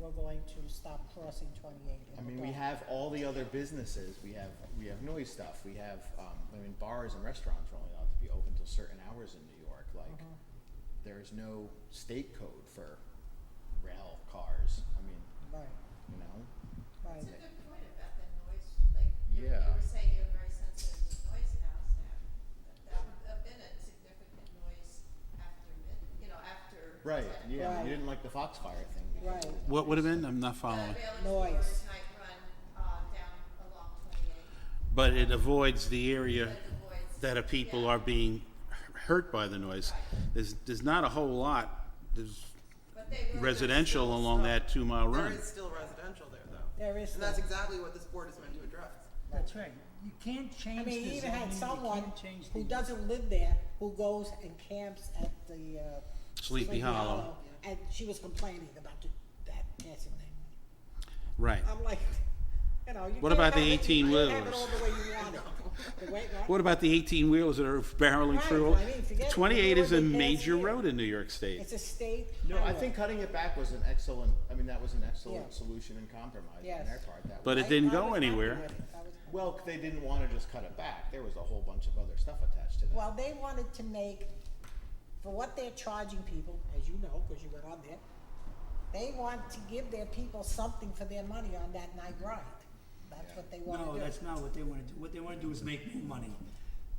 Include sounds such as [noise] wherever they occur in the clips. going to stop crossing twenty-eight. I and mean, we adopt- have all the other businesses, we have, we have noise stuff, we have, um, I mean, bars and restaurants are only allowed to be open till certain hours in New York, Uh-huh. like, Mm-hmm. there's no state code for rail cars, I mean, Right, you know? right. That's a good point about the noise, like, you, you Yeah. were saying you're very sensitive to noise now, Sam. That- That would have been a significant noise after mid, you know, after. Right, 10. yeah, I mean, Right. you didn't like the Foxfire thing. because of Right. the What would have noise been? stuff. I'm not The following. rail Noise. explorers night run, uh, down along twenty-eight, But it avoids the area that the boys. that a people Yeah. are being hurt by the noise. There's, there's not a whole lot, there's But they were. residential along that two-mile There run. is still residential there, though. There is And that's still- exactly what this board is meant to address. That's right. You can't I mean, change the zoning, you you even had someone can't change the. who doesn't live there, who goes and camps at the, uh. Sleepy Hollow. And she was complaining about the, that dancing thing. Right. I'm like, you know, you What can't about the have it- you 18 can't Have it wheelers? all the way you want it. The way, right? What about the eighteen wheelers that are barreling Right, through? I mean, forget it. Twenty-eight is a We're the best major here. road in New York State. It's a state. No, I highway. think cutting it back was an excellent, I mean, that was an Yeah. excellent solution and compromise on Yes. their part, that was. But it I- didn't I go was happy anywhere. with it. I was happy. Well, they didn't wanna just cut it back, there was a whole bunch of other stuff attached to that. Well, they wanted to make, for what they're charging people, as you know, because you went on there, they want to give their people something for their money on that night ride. That's what they want to do. No, that's not what they wanna do. What they wanna do is make more money.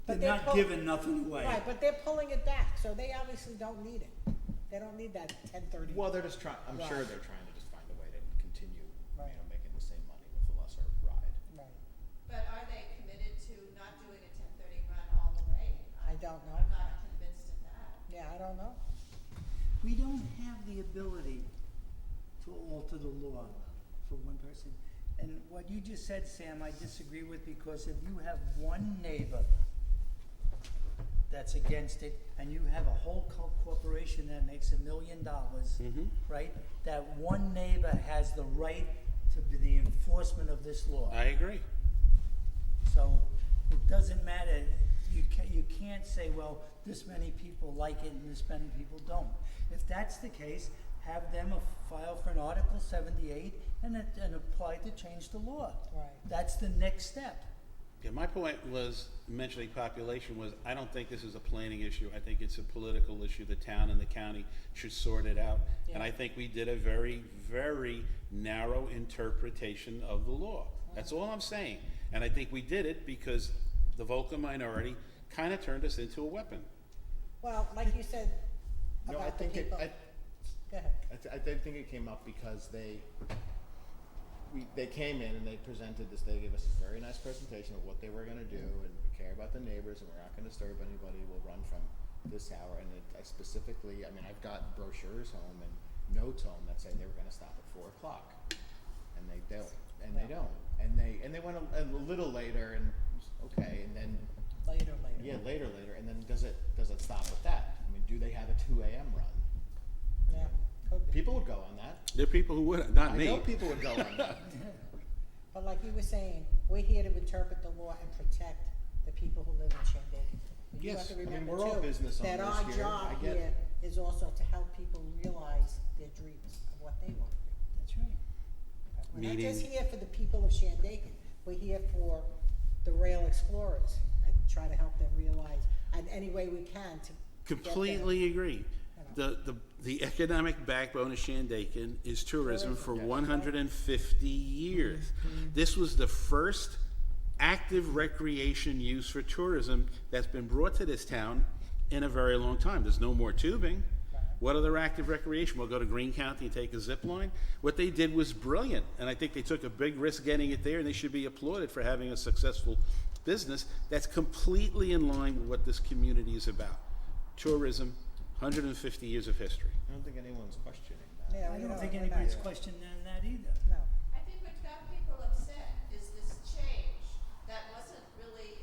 But They're they're not pull- giving nothing away. Right, but they're pulling it back, so they obviously don't need it. They don't need that ten thirty. Well, they're just trying, I'm Right. sure they're trying to just find a way to continue, you Right. know, making the same money with a lesser ride. Right, But are they committed to not doing a ten thirty run all the way? I don't know. I'm not convinced of that. Yeah, I don't know. We don't have the ability to alter the law for one person. And what you just said, Sam, I disagree with because if you have one neighbor that's against it and you have a whole co- corporation that makes a million dollars, right? That one neighbor has the right to be the enforcement of this law. I agree. So it doesn't matter, you can't, you can't say, well, this many people like it and this many people don't. If that's the case, have them a- file for an Article seventy-eight and, it- and apply to change the law. Right. That's the next step. Yeah, my point was mentioning population was, I don't think this is a planning issue. I think it's a political issue. The town and the county should sort it out. And I Yeah. think we did a very, very narrow interpretation of the law. That's all I'm saying. And I think we did it because the vocal minority kind of turned us into a weapon. Well, like you said No, I about the think it, people. I, Go ahead. I, th- I did think it came up because they, we, they came in and they presented this, they gave us this very nice presentation of what they were gonna do, and we care about the neighbors, and we're not gonna disturb anybody, we'll run from this hour, and it, I specifically, I mean, I've got brochures home and notes home that say they were gonna stop at four o'clock, and they don't, and they don't, and they, and they went a, a little later, and, okay, and then, Later, later. yeah, later, later, and then does it, does it stop at that? I mean, do they have a two AM run? Yeah, could be. People would go on that. There are people who would, not I me. know people would go [laughs] on that. But like you were saying, we're here to interpret the law and protect the people who live in Shindig. You have Yes, to I mean, remember we're all too, business that owners our here, I job get here it. is also to help people realize their dreams of what they want to That's right. do. We're not just Meaning- here for the people of Shandaken, we're here for the rail explorers and try to help them realize, and any way we can to get them. Completely agree. The, the, the economic backbone of Shandaken is tourism for one hundred and fifty years. This was the first active recreation use for tourism that's been brought to this town in a very long time. There's no more tubing. What other active recreation? We'll go to Green County and take a zip line. What they did was brilliant, and I think they took a big risk getting it there, and they should be applauded for having a successful business that's completely in line with what this community is about. Tourism, 150 years of history. I don't think anyone's questioning that. Yeah, I we don't think we're not- anybody's questioning that either. No, I think what got people upset is this change that wasn't really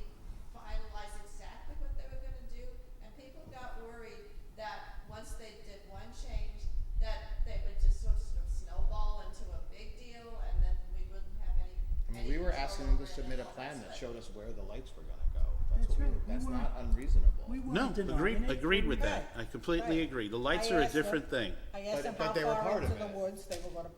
finalized exactly what they were gonna do, and people got worried that once they did one change, that they would just sort of snowball into a big deal, and then we wouldn't have any, I mean, any we were control asking them to over it and submit a all that plan that stuff. showed us where the lights were gonna go. That's That's what we, right. We that's weren't- not unreasonable. We No, weren't agreed, denying it. agreed with that. Right, I completely right. agree. The I lights are a asked them- different thing. I asked But- them but how they were far part into of the it. woods they were gonna